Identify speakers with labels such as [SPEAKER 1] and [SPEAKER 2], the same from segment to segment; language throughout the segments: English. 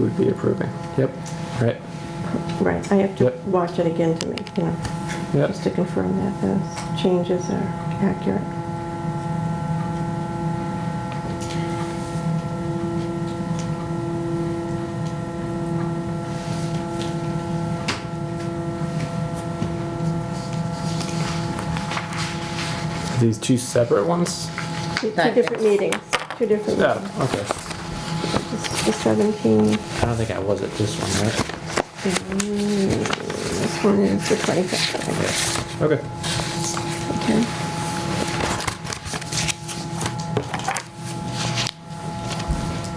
[SPEAKER 1] would be approving. Yep, right,
[SPEAKER 2] Right, I have to
[SPEAKER 1] Yep.
[SPEAKER 2] watch it again to make, you know,
[SPEAKER 1] yep.
[SPEAKER 2] just to confirm that those changes are accurate.
[SPEAKER 1] These two separate ones?
[SPEAKER 2] Two two
[SPEAKER 3] Right.
[SPEAKER 2] different meetings, two different,
[SPEAKER 1] Yeah,
[SPEAKER 2] meetings.
[SPEAKER 1] okay.
[SPEAKER 2] the 17,
[SPEAKER 1] I don't think I was at this one, right?
[SPEAKER 2] this one is the 25th,
[SPEAKER 1] Yeah. Okay.
[SPEAKER 2] okay?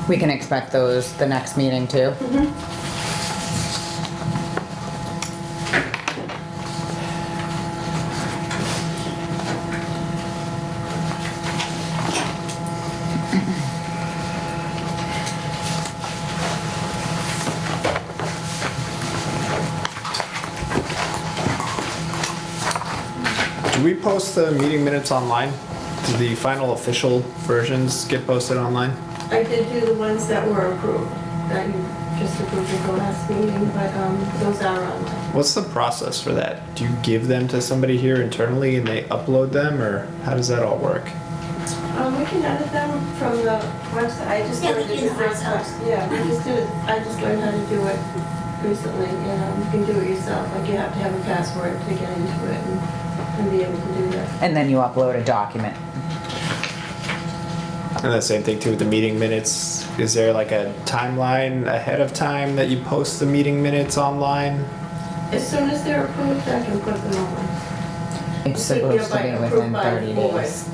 [SPEAKER 3] We can expect those the next meeting too.
[SPEAKER 4] Do we post the meeting minutes online? Do the final official versions get posted online?
[SPEAKER 5] I did do the ones that were approved, that you just approved at the last meeting, but um, those are on.
[SPEAKER 4] What's the process for that? Do you give them to somebody here internally and they upload them, or how does that all work?
[SPEAKER 5] Um, We can edit them from the website, I just
[SPEAKER 6] Yeah, we
[SPEAKER 5] learned it
[SPEAKER 6] can
[SPEAKER 5] the first time.
[SPEAKER 6] ourselves.
[SPEAKER 5] Yeah, we just do it, I just learned how to do it recently, and um, you can do it yourself, like you have to have a password to get into it and and be able to do that.
[SPEAKER 3] And then you upload a document.
[SPEAKER 4] And the same thing too with the meeting minutes. Is there like a timeline ahead of time that you post the meeting minutes online?
[SPEAKER 5] As soon as they're approved, I can put them on.
[SPEAKER 3] It's supposed to be within thirty days.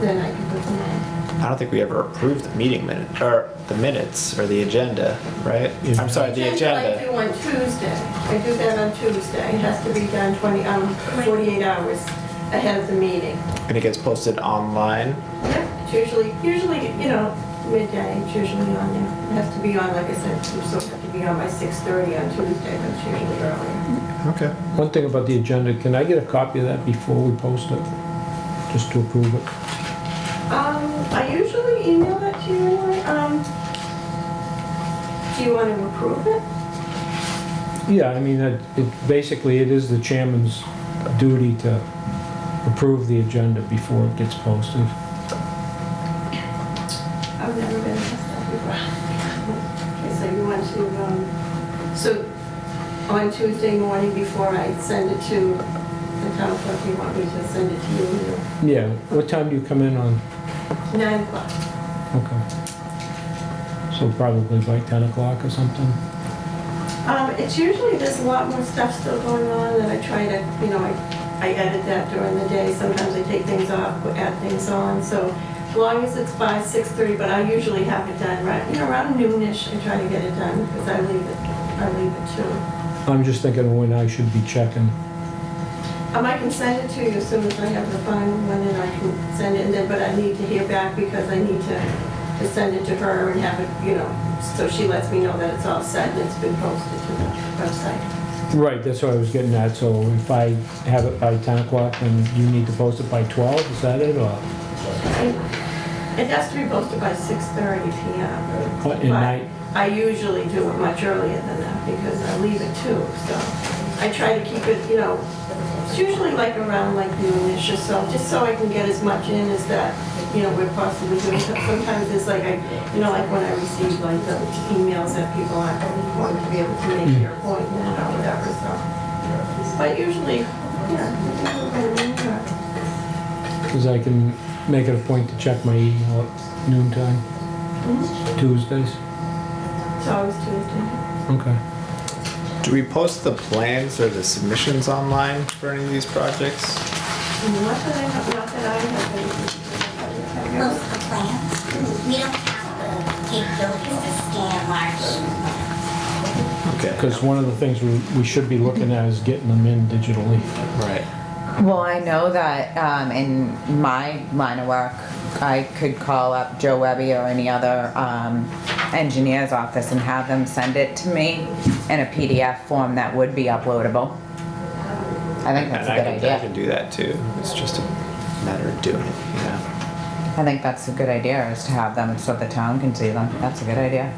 [SPEAKER 5] Then I can put them on.
[SPEAKER 4] I don't think we ever approved the meeting minute, or the minutes, or the agenda, right? I'm sorry, the
[SPEAKER 5] I
[SPEAKER 4] agenda.
[SPEAKER 5] do on Tuesday. I do that on Tuesday. It has to be done 20, um, 48 hours ahead of the meeting.
[SPEAKER 4] And it gets posted online.
[SPEAKER 5] Yep, It's usually, usually, you know, midday, it's usually on there. It has to be on, like I said, you still have to be on by 6:30 on Tuesday, but it's usually earlier.
[SPEAKER 4] Okay.
[SPEAKER 7] One thing about the agenda, can I get a copy of that before we post it? Just to approve it?
[SPEAKER 5] Um, I usually email that to you, anyway. um, do you want to approve it?
[SPEAKER 7] Yeah, I mean, it, it- basically, it is the chairman's duty to approve the agenda before it gets posted.
[SPEAKER 5] I've never been asked that before. Okay, so you want to, um, so on Tuesday morning before I send it to the town clerk, you want me to send it to you?
[SPEAKER 7] Yeah, what time do you come in on?
[SPEAKER 5] Nine o'clock.
[SPEAKER 7] Okay. So probably by 10 o'clock or something?
[SPEAKER 5] Um, it's usually, there's a lot more stuff still going on that I try to, you know, I, I edit that during the day. Sometimes I take things off, add things on, so as long as it's by six thirty, but I usually have it done right, you know, around noonish, I try to get it done, because I leave it, I leave it too.
[SPEAKER 7] I'm just thinking when I should be checking.
[SPEAKER 5] Um, I can send it to you as soon as I have the final one, and I can send it, and then, but I need to hear back because I need to, to send it to her and have it, you know, so she lets me know that it's all set and it's been posted to the website.
[SPEAKER 7] Right, that's what I was getting at, so if I have it by 10 o'clock, then you need to post it by 12, is that it, or?
[SPEAKER 5] It has to be posted by six thirty PM.
[SPEAKER 7] What, at night?
[SPEAKER 5] But I usually do it much earlier than that because I leave it too, so I try to keep it, you know, it's usually like around like noonish or so, just so I can get as much in as that, you know, we're possibly doing. Sometimes it's like I, you know, like when I receive like the emails that people aren't going to be able to make their appointment or whatever, so. But usually, yeah. I do it by noon or-
[SPEAKER 7] Because I can make it a point to check my email at noon time, Tuesdays.
[SPEAKER 5] It's always Tuesday.
[SPEAKER 7] Okay.
[SPEAKER 4] Do we post the plans or the submissions online for any of these projects?
[SPEAKER 5] Not that I have, not that I have anything. to do
[SPEAKER 6] Post
[SPEAKER 5] with
[SPEAKER 6] the plans. We don't have the capabilities to scan large.
[SPEAKER 4] Okay.
[SPEAKER 7] Because one of the things we, we should be looking at is getting them in digitally.
[SPEAKER 4] Right.
[SPEAKER 3] Well, I know that, um, in my line of work, I could call up Joe Webby or any other, um, engineer's office and have them send it to me in a PDF form that would be uploadable. I think that's a good
[SPEAKER 4] And I can, I can
[SPEAKER 3] idea.
[SPEAKER 4] do that too. It's just a matter of doing it, you know?
[SPEAKER 3] I think that's a good idea, is to have them so the town can see them. That's a good idea.